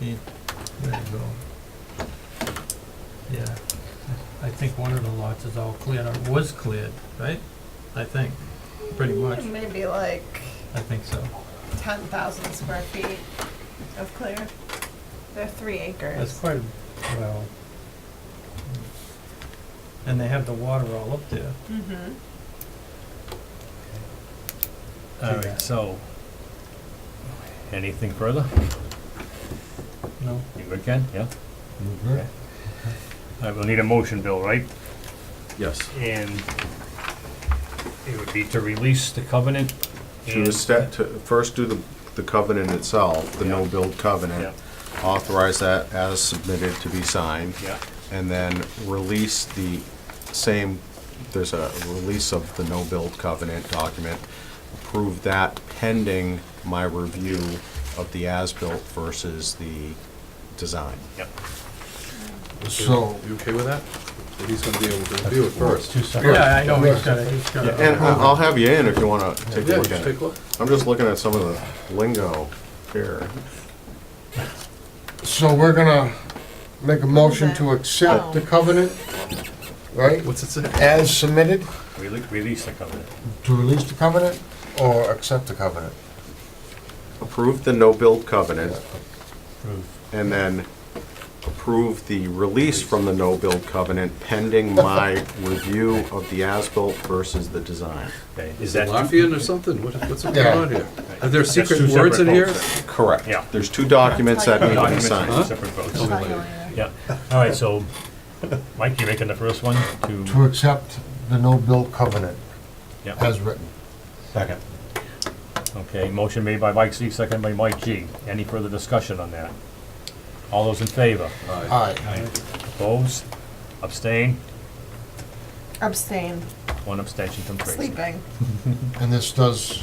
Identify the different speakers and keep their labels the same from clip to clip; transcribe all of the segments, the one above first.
Speaker 1: Yeah, there you go. Yeah, I think one of the lots is all cleared, or was cleared, right? I think, pretty much,
Speaker 2: Maybe like
Speaker 1: I think so.
Speaker 2: ten thousand square feet of clear. They're three
Speaker 1: That's
Speaker 2: acres.
Speaker 1: quite, well. And they have the water all up there.
Speaker 2: Mm-hmm.
Speaker 3: All right, so, anything further?
Speaker 1: No,
Speaker 3: You good, Ken? Yeah? Okay. All right, we'll need a motion, Bill, right?
Speaker 4: Yes.
Speaker 3: And it would be to release the covenant
Speaker 4: To
Speaker 3: and-
Speaker 4: esta- to first do the, the covenant itself, the
Speaker 3: Yeah.
Speaker 4: no-build
Speaker 3: Yeah,
Speaker 4: covenant, authorize that as submitted to be signed,
Speaker 3: yeah,
Speaker 4: and then release the same, there's a release of the no-build covenant document, approve that pending my review of the as-built versus the design.
Speaker 3: yep.
Speaker 5: So. You okay with that? That he's gonna be able to review it first?
Speaker 1: yeah, I know, he's got it, he's got
Speaker 4: And
Speaker 1: it.
Speaker 4: I- I'll have you in if you wanna take a
Speaker 5: Yeah,
Speaker 4: look
Speaker 5: just
Speaker 4: at
Speaker 5: take
Speaker 4: it.
Speaker 5: a look.
Speaker 4: I'm just looking at some of the lingo here.
Speaker 6: So we're gonna make a motion to
Speaker 2: Oh.
Speaker 6: accept the covenant, right,
Speaker 5: What's it say?
Speaker 6: as submitted,
Speaker 3: Rele- Release the covenant.
Speaker 6: to release the covenant or accept the covenant?
Speaker 4: Approve the no-build covenant,
Speaker 3: Approve.
Speaker 4: and then approve the release from the no-build covenant pending my review of the as-built versus the design.
Speaker 3: Okay, is that?
Speaker 5: Lafayette or something? What- What's going
Speaker 6: Yeah.
Speaker 5: on here? Are there
Speaker 3: That's two
Speaker 5: secret words in
Speaker 3: separate
Speaker 5: here?
Speaker 3: votes.
Speaker 4: Correct.
Speaker 3: Yeah.
Speaker 4: There's two documents that need to be
Speaker 3: Documents
Speaker 4: signed.
Speaker 3: and separate votes.
Speaker 5: Tell me later.
Speaker 3: Yeah, all right, so, Mike, you making the first one
Speaker 6: To
Speaker 3: to?
Speaker 6: accept the no-build covenant
Speaker 3: Yeah.
Speaker 6: as written.
Speaker 3: Second. Okay, motion made by Mike C, second by Mike G. Any further discussion on that? All those in favor?
Speaker 5: Aye.
Speaker 6: Aye.
Speaker 3: Opposed? Abstain?
Speaker 2: Abstain.
Speaker 3: One abstention from Tracy.
Speaker 2: Sleeping.
Speaker 6: And this does,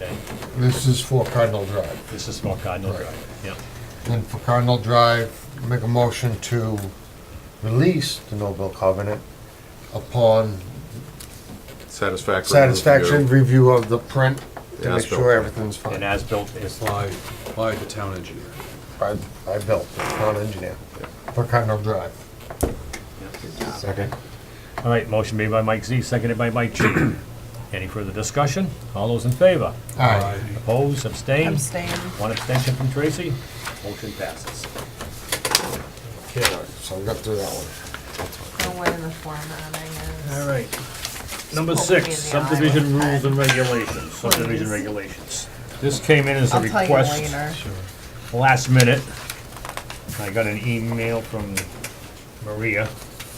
Speaker 3: Okay,
Speaker 6: this is for Cardinal Drive.
Speaker 3: this is small Cardinal
Speaker 6: Right.
Speaker 3: Drive, yeah.
Speaker 6: And for Cardinal Drive, make a motion to release the no-build covenant upon
Speaker 4: Satisfactory.
Speaker 6: satisfaction
Speaker 4: review.
Speaker 6: review of the print to make
Speaker 4: As-built.
Speaker 6: sure everything's
Speaker 3: And
Speaker 6: fine.
Speaker 3: as-built is,
Speaker 5: By, by the town engineer.
Speaker 6: I, I built, not engineer, for Cardinal Drive.
Speaker 4: Second.
Speaker 3: all right, motion made by Mike Z, seconded by Mike G. Any further discussion? All those in favor?
Speaker 6: Aye.
Speaker 3: Opposed, abstained?
Speaker 2: Abstain.
Speaker 3: One abstention from Tracy. Motion passes. Okay.
Speaker 6: So we got through that one.
Speaker 2: No way in the formatting is.
Speaker 3: All right. Number
Speaker 2: Just poke me
Speaker 3: six,
Speaker 2: in the eye
Speaker 3: subdivision
Speaker 2: with
Speaker 3: rules
Speaker 2: that.
Speaker 3: and regulations, subdivision
Speaker 2: Please.
Speaker 3: regulations. This came in as a
Speaker 2: I'll tell you
Speaker 3: request
Speaker 2: later.
Speaker 3: last minute. I got an email from Maria.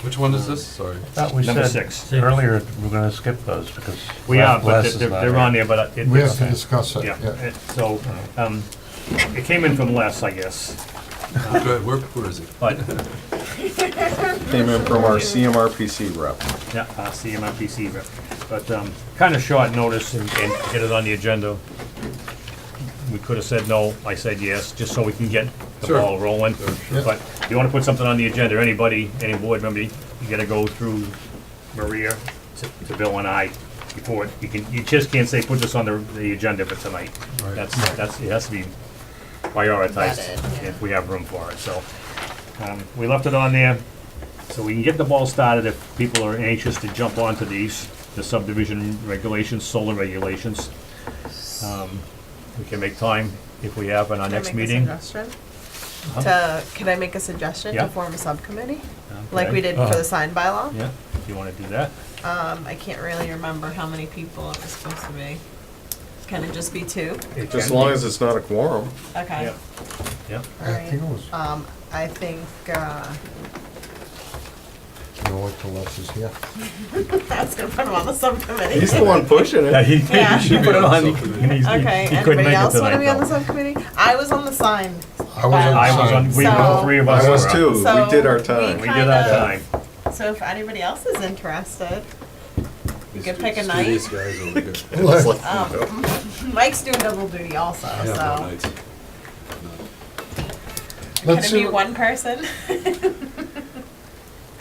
Speaker 5: Which one is this? Sorry.
Speaker 7: Thought we
Speaker 3: Number
Speaker 7: said
Speaker 3: six.
Speaker 7: earlier we're gonna skip those because.
Speaker 3: We are, but
Speaker 7: Les
Speaker 3: they're,
Speaker 7: is not
Speaker 3: they're
Speaker 7: here.
Speaker 3: on there, but it-
Speaker 6: We have to
Speaker 3: it's,
Speaker 6: discuss it,
Speaker 3: yeah,
Speaker 6: yeah.
Speaker 3: it- so, um, it came in from Les, I guess,
Speaker 5: Oh, Good, where, where is it?
Speaker 3: but,
Speaker 4: Came in from our CMRPC rep.
Speaker 3: yeah, uh, CMRPC rep. But, um, kinda short notice and, and get it on the agenda. We could've said no, I said yes, just so we can get the
Speaker 5: Sure.
Speaker 3: ball rolling.
Speaker 6: Yeah.
Speaker 3: But you wanna put something on the agenda, anybody, any board member, you gotta go through Maria to- to Bill and I before, it- you can, you just can't say, put this on the, the agenda for tonight.
Speaker 5: Right.
Speaker 3: That's, that's, it has to be prioritized
Speaker 2: Vetted, yeah.
Speaker 3: if we have room for it, so. um, We left it on there, so we can get the ball started if people are anxious to jump onto these, the subdivision regulations, solar regulations. Um, We can make time if we have in our
Speaker 2: Can I
Speaker 3: next
Speaker 2: make a
Speaker 3: meeting.
Speaker 2: suggestion? To, can I make a suggestion
Speaker 3: Yeah.
Speaker 2: to form a subcommittee? Like
Speaker 3: Okay.
Speaker 2: we did for the sign bylaw?
Speaker 3: Yeah, if you wanna do that,
Speaker 2: Um, I can't really remember how many people it was supposed to be. Can it just be two?
Speaker 3: It
Speaker 4: As
Speaker 3: can
Speaker 4: long
Speaker 3: be.
Speaker 4: as it's not a quorum.
Speaker 2: Okay.
Speaker 3: yeah, yeah.
Speaker 6: I think it was,
Speaker 2: Um, I think, uh,
Speaker 6: you know, what till Les is here.
Speaker 2: I was gonna put them on the subcommittee.
Speaker 4: He's the one pushing
Speaker 3: Yeah,
Speaker 4: it.
Speaker 3: he,
Speaker 2: Yeah.
Speaker 3: he put it on. and he's- he-
Speaker 2: Okay,
Speaker 3: he
Speaker 2: anybody
Speaker 3: couldn't make it
Speaker 2: else wanna
Speaker 3: tonight,
Speaker 2: be on the
Speaker 3: though.
Speaker 2: subcommittee? I was on the sign.
Speaker 6: I was on
Speaker 3: I was
Speaker 6: the
Speaker 3: on,
Speaker 6: side.
Speaker 3: we, all
Speaker 2: So-
Speaker 3: three of us
Speaker 4: I
Speaker 3: were
Speaker 4: was
Speaker 3: on.
Speaker 4: too.
Speaker 2: So,
Speaker 4: We did our
Speaker 2: we
Speaker 3: We
Speaker 4: time.
Speaker 3: did our
Speaker 2: Kinda.
Speaker 3: time.
Speaker 2: So if anybody else is interested, you could pick a
Speaker 5: Screw These
Speaker 2: night.
Speaker 5: guys over here.
Speaker 4: It's like,
Speaker 2: Um, Mike's doing double duty also,
Speaker 5: Yeah, no
Speaker 2: so.
Speaker 5: nights.
Speaker 2: Can
Speaker 6: Let's
Speaker 2: it
Speaker 6: see,
Speaker 2: be
Speaker 6: what-
Speaker 2: one person?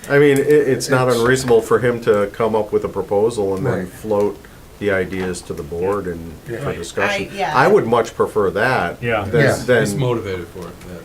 Speaker 4: I mean, it, it's not unreasonable for him to come up with a proposal and then
Speaker 6: Right.
Speaker 4: float the ideas to the board and for
Speaker 3: Right.
Speaker 4: discussion.
Speaker 2: I- yeah.
Speaker 4: I would much prefer that
Speaker 3: Yeah.
Speaker 4: than,
Speaker 6: Yeah.
Speaker 4: than
Speaker 5: He's motivated for it, yeah.